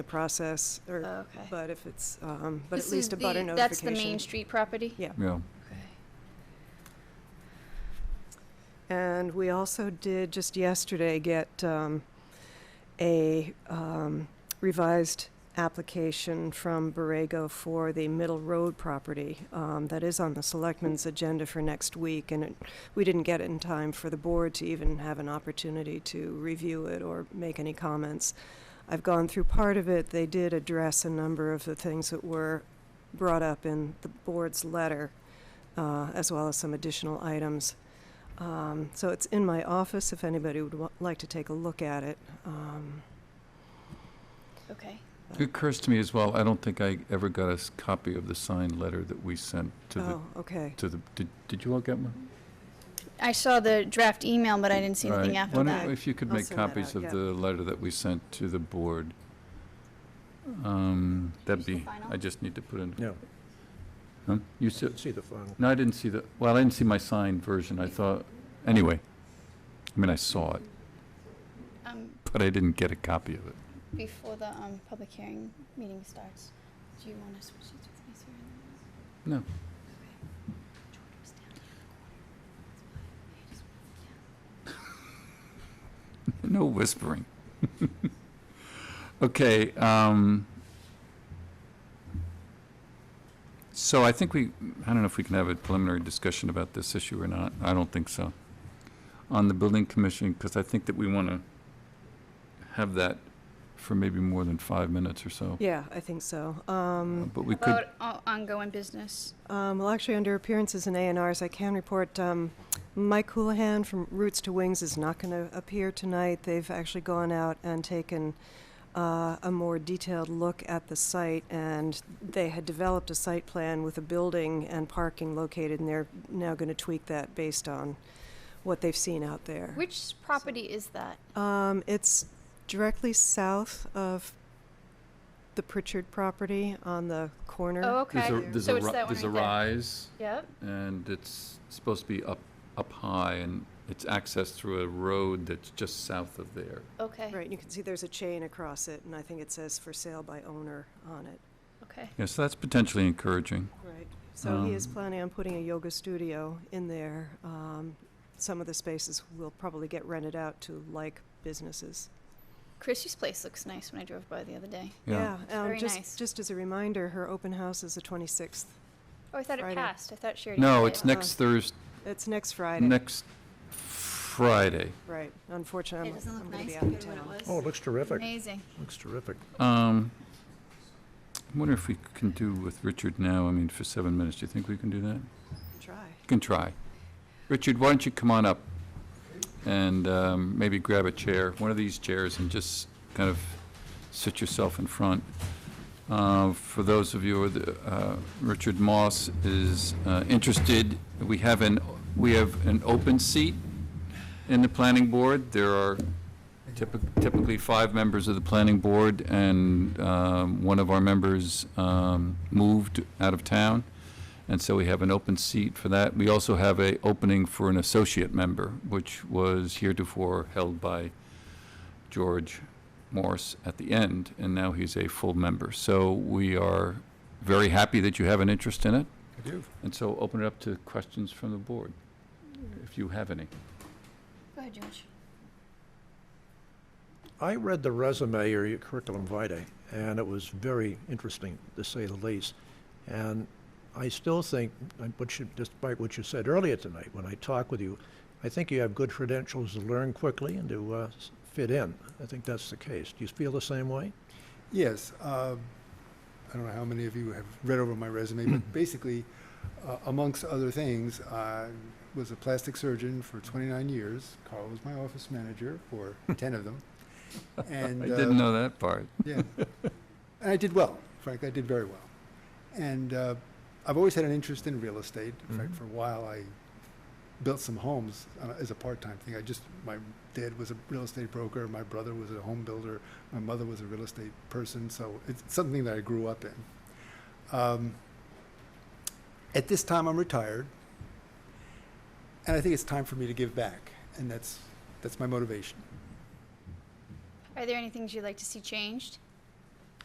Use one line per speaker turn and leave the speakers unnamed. the process, or,
Okay.
but if it's, um, but
Uh, This
at
is
least a butter
the-
notification.
That's the Main Street property?
Yeah.
yeah.
Okay.
And we also did just yesterday get um, a um, revised application from Borrego for the Middle Road property. um, That is on the selectmen's agenda for next week, and it- we didn't get it in time for the board to even have an opportunity to review it or make any comments. I've gone through part of it. They did address a number of the things that were brought up in the board's letter, uh, as well as some additional items. Um, so it's in my office if anybody would wa- like to take a look at it. Um,
Okay.
It occurs to me as well, I don't think I ever got a s- copy of the signed letter that we sent to the,
oh, okay.
to the, did, did you all get one?
I saw the draft email, but I didn't see anything
Right.
after
Why
that.
don't, if you could
I'll
make
send that
copies
out,
of
yeah.
the letter that we sent to the board, um, that'd
Here's the
be,
final.
I just need to put in,
No,
huh? You said,
see the final.
no, I didn't see the, well, I didn't see my signed version, I thought, anyway. I mean, I saw it,
Um,
but I didn't get a copy of it.
Before the um, public hearing meeting starts, do you want to switch seats with me, Sarah?
No.
Okay. George was down the other corner. That's why I just-
No whispering. Okay, um, so I think we, I don't know if we can have a preliminary discussion about this issue or not. I don't think so. On the building commission, because I think that we want to have that for maybe more than five minutes or so.
Yeah, I think so.
Uh,
Um,
But we could,
About o- ongoing business.
um, well, actually, under appearances and A&Rs, I can report um, Mike Houlihan from Roots to Wings is not going to appear tonight. They've actually gone out and taken uh, a more detailed look at the site, and they had developed a site plan with a building and parking located, and they're now going to tweak that based on what they've seen out there.
Which property is that?
Um, it's directly south of the Pritchard property on the corner.
Oh, okay.
there's a, there's
So
a,
it's
ri-
that one
there's a
right there.
rise,
Yep.
and it's supposed to be up, up high, and it's accessed through a road that's just south of there.
Okay.
Right, and you can see there's a chain across it, and I think it says for sale by owner on it.
Okay.
Yeah, so that's potentially encouraging.
Right. So he is
Um,
planning on putting a yoga studio in there. Um, some of the spaces will probably get rented out to like businesses.
Chrissy's place looks nice when I drove by the other day.
um,
Very
just,
nice.
Just as a reminder, her open house is the 26th.
Oh, I thought it
Friday.
passed. I thought she already.
No,
did.
it's next Thursday,
It's next Friday.
next Friday.
right. Unfortunately,
It doesn't
Um, I'm,
look
going to
nice
be out of
compared to
town.
what it
Oh,
was.
it looks terrific.
Amazing.
Looks terrific.
Um, I wonder if we can do with Richard now, I mean, for seven minutes, do you think we can do that? You
Try.
can try. Richard, why don't you come on up and um, maybe grab a chair, one of these chairs, and just kind of sit yourself in front. Uh, For those of you, with, uh, Richard Moss is uh, interested, we have an, we have an open seat in the planning board. There are typi- typically five members of the planning board, and um, one of our members um, moved out of town, and so we have an open seat for that. We also have a opening for an associate member, which was heretofore held by George Morse at the end, and now he's a full member. So we are very happy that you have an interest in it,
I do.
and so open it up to questions from the board, if you have any.
Go ahead, George.
I read the resume or your curriculum vitae, and it was very interesting, to say the least. And I still think, uh, what you- despite what you said earlier tonight, when I talked with you, I think you have good credentials to learn quickly and to uh, s- fit in. I think that's the case. Do you feel the same way?
Yes, uh, I don't know how many of you have read over my resume, but basically, uh, amongst other things, I was a plastic surgeon for 29 years. Carl was my office manager for 10 of them. And
I
uh,
didn't know that part.
yeah. And I did well, frankly, I did very well. And uh, I've always had an interest in real estate. In fact,
Mhm.
for a while, I built some homes uh, as a part-time thing. I just, my dad was a real estate broker, my brother was a home builder, my mother was a real estate person, so it's something that I grew up in. Um, At this time, I'm retired, and I think it's time for me to give back, and that's, that's my motivation.
Are there any things you'd like to see changed?